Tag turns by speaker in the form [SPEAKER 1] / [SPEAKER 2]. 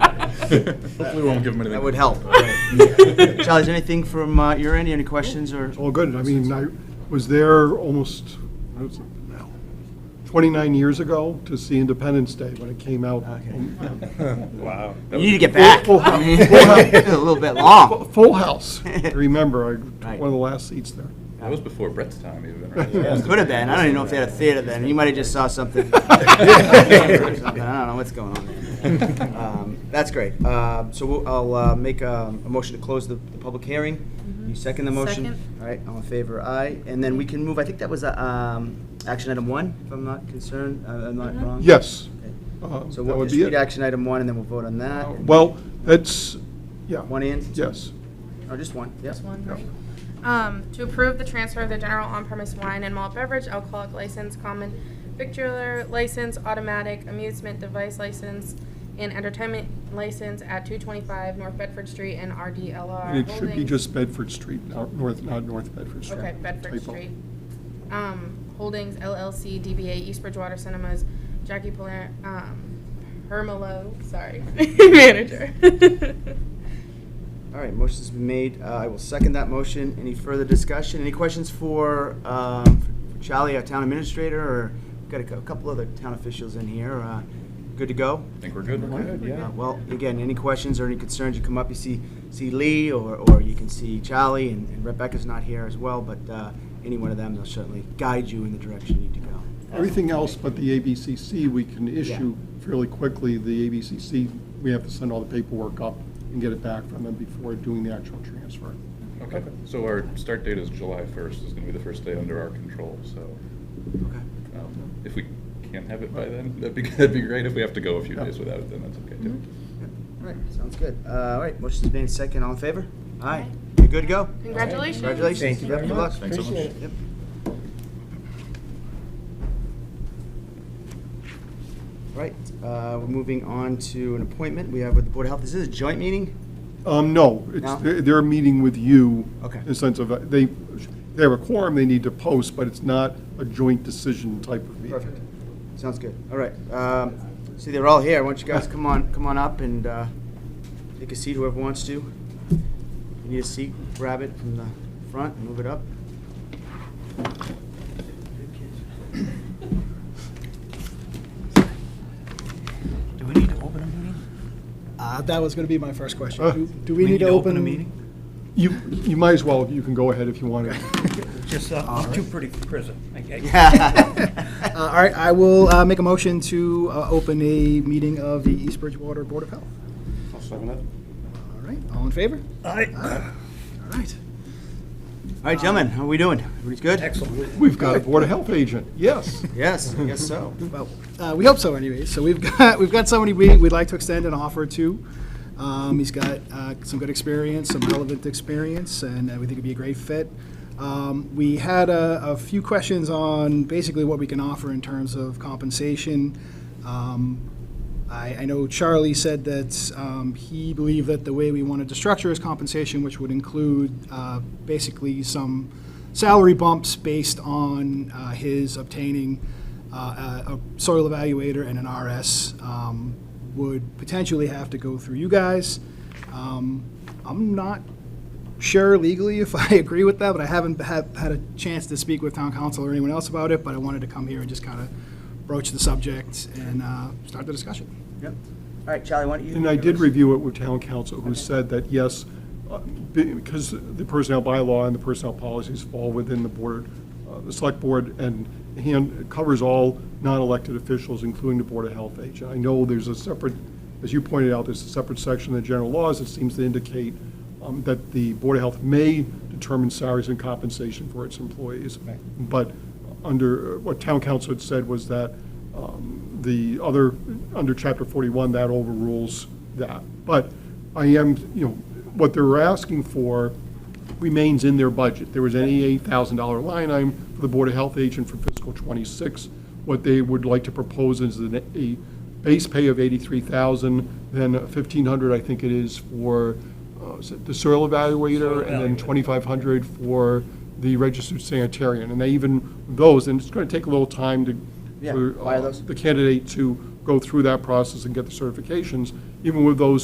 [SPEAKER 1] Hopefully we won't give them anything.
[SPEAKER 2] That would help. Charlie, is there anything from uh, your end, any questions or?
[SPEAKER 3] All good. I mean, I was there almost, I was- now, 29 years ago to see Independence Day when it came out. Um,
[SPEAKER 1] Wow.
[SPEAKER 2] You need to
[SPEAKER 3] oh,
[SPEAKER 2] get back.
[SPEAKER 3] Full- full
[SPEAKER 2] I
[SPEAKER 3] house.
[SPEAKER 2] mean,
[SPEAKER 3] Full house.
[SPEAKER 2] A little bit
[SPEAKER 3] Fu-
[SPEAKER 2] long.
[SPEAKER 3] Full house. I remember, I took
[SPEAKER 2] Right.
[SPEAKER 3] one of the last seats there.
[SPEAKER 1] That was before Brett's time even, right?
[SPEAKER 2] Could have been. I don't even know if they had a theater then. You might have just saw something. Something. I don't know what's going on. there. Um, That's great. Um, So we'll- I'll uh, make um, a motion to close the the public hearing. You second the motion?
[SPEAKER 4] Second.
[SPEAKER 2] All right, all in favor, aye. And then we can move, I think that was uh, um, action item one, if I'm not concerned, uh, I'm not wrong?
[SPEAKER 3] Yes. Uh,
[SPEAKER 2] So
[SPEAKER 3] That
[SPEAKER 2] we'll
[SPEAKER 3] would
[SPEAKER 2] just
[SPEAKER 3] be
[SPEAKER 2] read
[SPEAKER 3] it.
[SPEAKER 2] action item one, and then we'll vote on that.
[SPEAKER 3] Well, it's, yeah,
[SPEAKER 2] One in?
[SPEAKER 3] yes.
[SPEAKER 2] Or Oh, just one, yes.
[SPEAKER 4] Just one, right? Um, to approve the transfer of the general on-premise wine and malt beverage alcoholic license, common victular license, automatic amusement device license, and entertainment license at two twenty-five North Bedford Street and
[SPEAKER 3] And
[SPEAKER 4] RDLR
[SPEAKER 3] it should be
[SPEAKER 4] Holding.
[SPEAKER 3] just Bedford Street, not North, not North Bedford Street.
[SPEAKER 4] Okay, Bedford
[SPEAKER 3] Typo.
[SPEAKER 4] Street. Um, Holdings LLC DBA East Bridgewater Cinemas, Jackie Paler, um, Hermelo, sorry, manager.
[SPEAKER 2] All right, motion's been made. Uh, I will second that motion. Any further discussion? Any questions for um, for Charlie, our town administrator, or we've got a cou- couple other town officials in here. uh, Good to go?
[SPEAKER 1] I think we're good.
[SPEAKER 2] Uh, Well, again, any questions or any concerns, you come up, you see, see Lee, or, or you can see Charlie, and and Rebecca's not here as well, but uh, any one of them, they'll certainly guide you in the direction you need to go.
[SPEAKER 3] Everything else but the ABCC, we can issue fairly quickly. The ABCC, we have to send all the paperwork up and get it back from them before doing the actual transfer.
[SPEAKER 1] Okay, so our start date is July 1st, is going to be the first day under our control, so
[SPEAKER 2] Okay.
[SPEAKER 1] um, if we can have it by then, that'd be, that'd be great. If we have to go a few days without it, then that's okay too.
[SPEAKER 2] Mm-hmm. All right, sounds good. Uh, All right, motion's been made. Second, all in favor? Aye. You're good to go?
[SPEAKER 4] Congratulations.
[SPEAKER 2] Congratulations.
[SPEAKER 5] Thank you
[SPEAKER 2] Yep,
[SPEAKER 5] very
[SPEAKER 2] good
[SPEAKER 5] much.
[SPEAKER 2] luck.
[SPEAKER 1] Thanks so much.
[SPEAKER 5] Appreciate it.
[SPEAKER 2] Yep. Right, uh, we're moving on to an appointment we have with the Board of Health. Is this a joint meeting?
[SPEAKER 3] Um, no, it's,
[SPEAKER 2] No?
[SPEAKER 3] they're- they're meeting with you.
[SPEAKER 2] Okay.
[SPEAKER 3] In the sense of, uh, they, they have a quorum they need to post, but it's not a joint decision type of meeting.
[SPEAKER 2] Perfect. Sounds good. All right. um, See, they're all here. Why don't you guys come on, come on up and uh, take a seat, whoever wants to. You need a seat, grab it from the front and move it up.
[SPEAKER 6] Do we need to open a meeting?
[SPEAKER 5] Uh, That was going to be my first question.
[SPEAKER 3] Huh?
[SPEAKER 5] Do- Do we need to open?
[SPEAKER 6] a meeting?
[SPEAKER 3] You, you might as well, you can go ahead if you want to.
[SPEAKER 6] Just, uh, I'm too pretty for prison. I- I-
[SPEAKER 5] Uh, All right, I will uh, make a motion to uh, open a meeting of the East Bridgewater Board of Health. All right, all in favor?
[SPEAKER 6] I-
[SPEAKER 5] All right.
[SPEAKER 2] All right, gentlemen, how are we doing? Everybody's good?
[SPEAKER 6] Excellent.
[SPEAKER 3] We've got a Board of Health agent, yes.
[SPEAKER 2] Yes, I guess so.
[SPEAKER 5] Well, uh, we hope so anyways. So we've got, we've got somebody we, we'd like to extend an offer to. Um, He's got uh, some good experience, some relevant experience, and uh, we think it'd be a great fit. Um, We had a, a few questions on basically what we can offer in terms of compensation. Um, I, I know Charlie said that um, he believed that the way we wanted to structure his compensation, which would include uh, basically some salary bumps based on uh, his obtaining uh, a a soil evaluator and an RS, um, would potentially have to go through you guys. Um, I'm not sure legally if I agree with that, but I haven't had, had a chance to speak with town council or anyone else about it, but I wanted to come here and just kind of broach the subject and uh, start the discussion.
[SPEAKER 2] Yep. All right, Charlie, why don't you?
[SPEAKER 3] And I did review it with town council, who said that, yes, uh, be- because the personnel bylaw and the personnel policies fall within the board, uh, the select board, and hand, it covers all non-elected officials, including the Board of Health agent. I know there's a separate, as you pointed out, there's a separate section in the general laws that seems to indicate um, that the Board of Health may determine salaries and compensation for its employees. But under, what town council had said was that um, the other, under Chapter 41, that overrules that. But I am, you know, what they're asking for remains in their budget. There was an $88,000 line item for the Board of Health agent for fiscal '26. What they would like to propose is an- a base pay of 83,000, then 1,500, I think it is, for uh, is it the soil evaluator, and then 2,500 for the registered sanitarian. And they even, those, and it's going to take a little time to,
[SPEAKER 2] Yeah,
[SPEAKER 3] for
[SPEAKER 2] why are
[SPEAKER 3] uh,
[SPEAKER 2] those?
[SPEAKER 3] the candidate to go through that process and get the certifications. Even with those